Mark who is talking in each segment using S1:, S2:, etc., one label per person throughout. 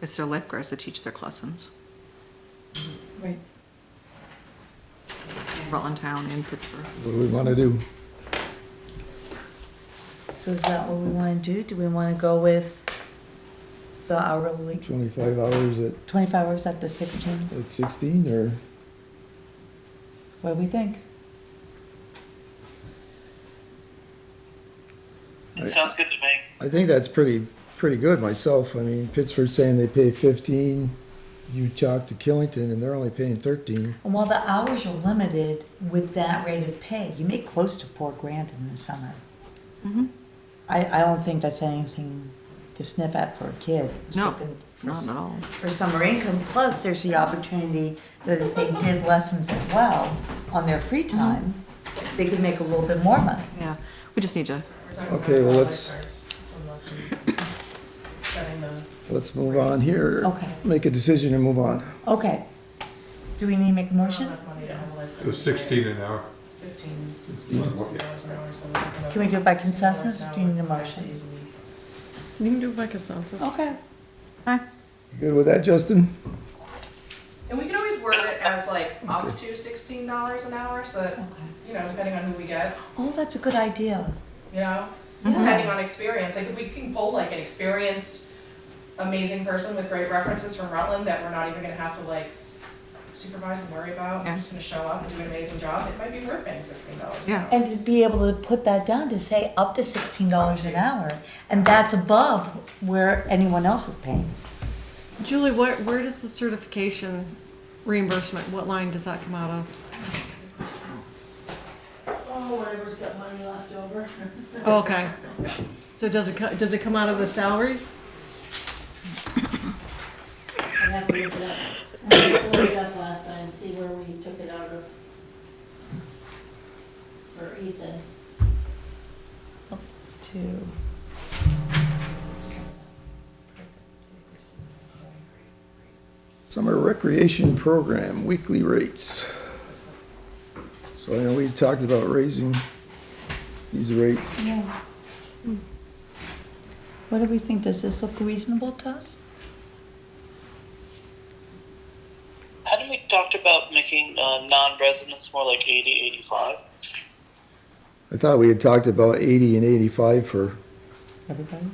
S1: It's their lifeguards that teach their lessons.
S2: Right.
S1: Rutland Town in Pittsburgh.
S3: What do we want to do?
S2: So is that what we wanna do? Do we wanna go with the hourly,
S3: Twenty-five hours at,
S2: twenty-five hours at the sixteen?
S3: at sixteen or
S2: What do we think?
S3: Right.
S4: It sounds good to me.
S3: I think that's pretty, pretty good myself. I mean, Pittsburgh's saying they pay fifteen. You talk to Killington and they're only paying thirteen.
S2: And while the hours are limited with that rate of pay, you make close to four grand in the summer.
S1: Mhm.
S2: I, I don't think that's anything to sniff at for a kid. who's
S1: No,
S2: looking for
S1: Not
S2: s-
S1: at all.
S2: For summer income, plus there's the opportunity that if they did lessons as well on their free
S1: Mm-hmm.
S2: time, they could make a little bit more money.
S1: Yeah, we just need to,
S3: Okay, well, let's- Let's move on here.
S2: Okay.
S3: Make a decision and move on.
S2: Okay. Do we need to make a motion?
S5: It was sixteen an hour.
S6: Fifteen.
S2: Can we do it by consensus or do you need a motion?
S7: You can do it by consensus.
S2: Okay.
S3: You Good with that, Justin?
S6: And we can always word it as like up to sixteen dollars an hour, so that,
S2: Okay.
S6: you know, depending on who we get,
S2: Oh, that's a good idea.
S6: you know?
S2: Mm-hmm.
S6: Depending on experience, like if we can pull like an experienced, amazing person with great references from Rutland that we're not even gonna have to like supervise and worry about,
S1: Yeah.
S6: and just gonna show up and do an amazing job, it might be worth paying sixteen dollars an
S1: Yeah.
S6: hour.
S2: And to be able to put that down to say up to sixteen dollars an hour, and that's above where anyone else is paying.
S7: Julie, where, where does the certification reimbursement, what line does that come out of?
S8: Oh, whatever's got money left over.
S7: Oh, okay. So does it, co- does it come out of the salaries?
S8: I have to look it up. I pulled it up last time, see where we took it out of. For Ethan.
S2: Two.
S3: Summer Recreation Program, weekly rates. So I know we talked about raising these rates.
S2: Yeah. Hmm. What do we think? Does this look reasonable to us?
S4: Hadn't we talked about making uh, non-residents more like 80, 85?
S3: I thought we had talked about eighty and eighty-five for,
S2: Everybody?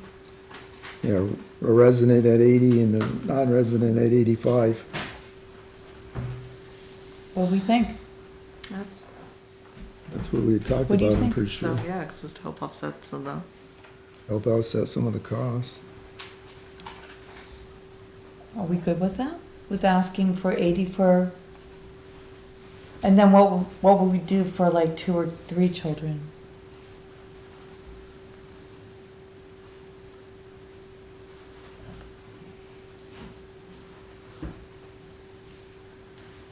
S3: you know, a resident at eighty and a non-resident at eighty-five.
S2: What do we think?
S1: that's,
S3: That's what we had talked
S2: What do you
S3: about, I'm
S2: think?
S3: pretty sure.
S1: so, yeah, because it was to help offset some of
S3: Help offset some of the costs.
S2: Are we good with that? With asking for eighty for? And then what, what would we do for like two or three children?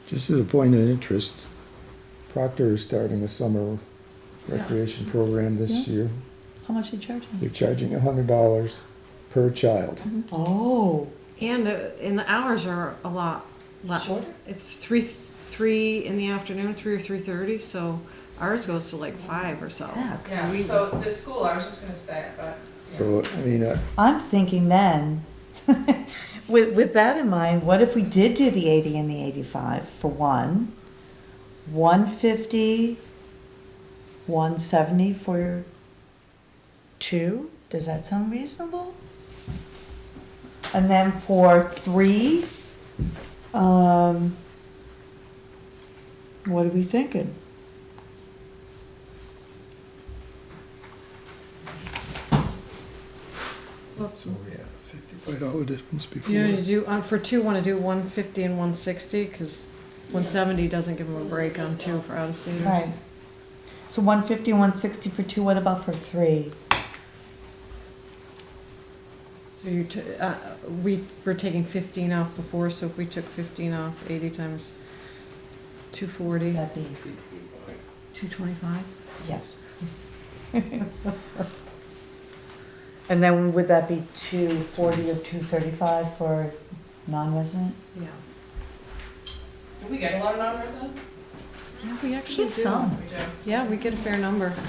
S3: Just as a point of interest, Proctor is starting a summer recreation program
S2: Yes.
S3: this year.
S2: How much are you charging?
S3: They're charging a hundred dollars per child.
S2: Oh,
S7: And, uh, and the hours are a lot less.
S2: Shorter?
S7: It's three, three in the afternoon, three or three thirty, so ours goes to like five or so.
S2: Yeah.
S6: Yeah,
S7: We-
S6: so the school, I was just gonna say it, but. yeah.
S3: So, I mean, uh,
S2: I'm thinking then, with, with that in mind, what if we did do the eighty and the eighty-five for one? One fifty, one seventy for two, does that sound reasonable? And then for three, um, what are we thinking?
S3: so we had a fifty-five dollar difference before.
S7: You wanna do, uh, for two, wanna do one fifty and one sixty, cause one seventy doesn't give them a break on two for out of state.
S2: Right. So one fifty, one sixty for two, what about for three?
S7: So you, t- uh, we were taking fifteen off before, so if we took fifteen off, eighty times two forty,
S2: That'd be.
S7: two twenty-five?
S2: Yes. And then would that be two forty or two thirty-five for non-resident?
S7: Yeah.
S6: Do we get a lot of non-residents?
S7: Yeah, we actually do.
S2: some.
S6: We do.
S7: Yeah, we get a fair number.
S1: them.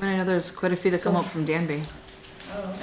S1: And I know there's quite a few that come up from Danby.
S6: Oh, okay.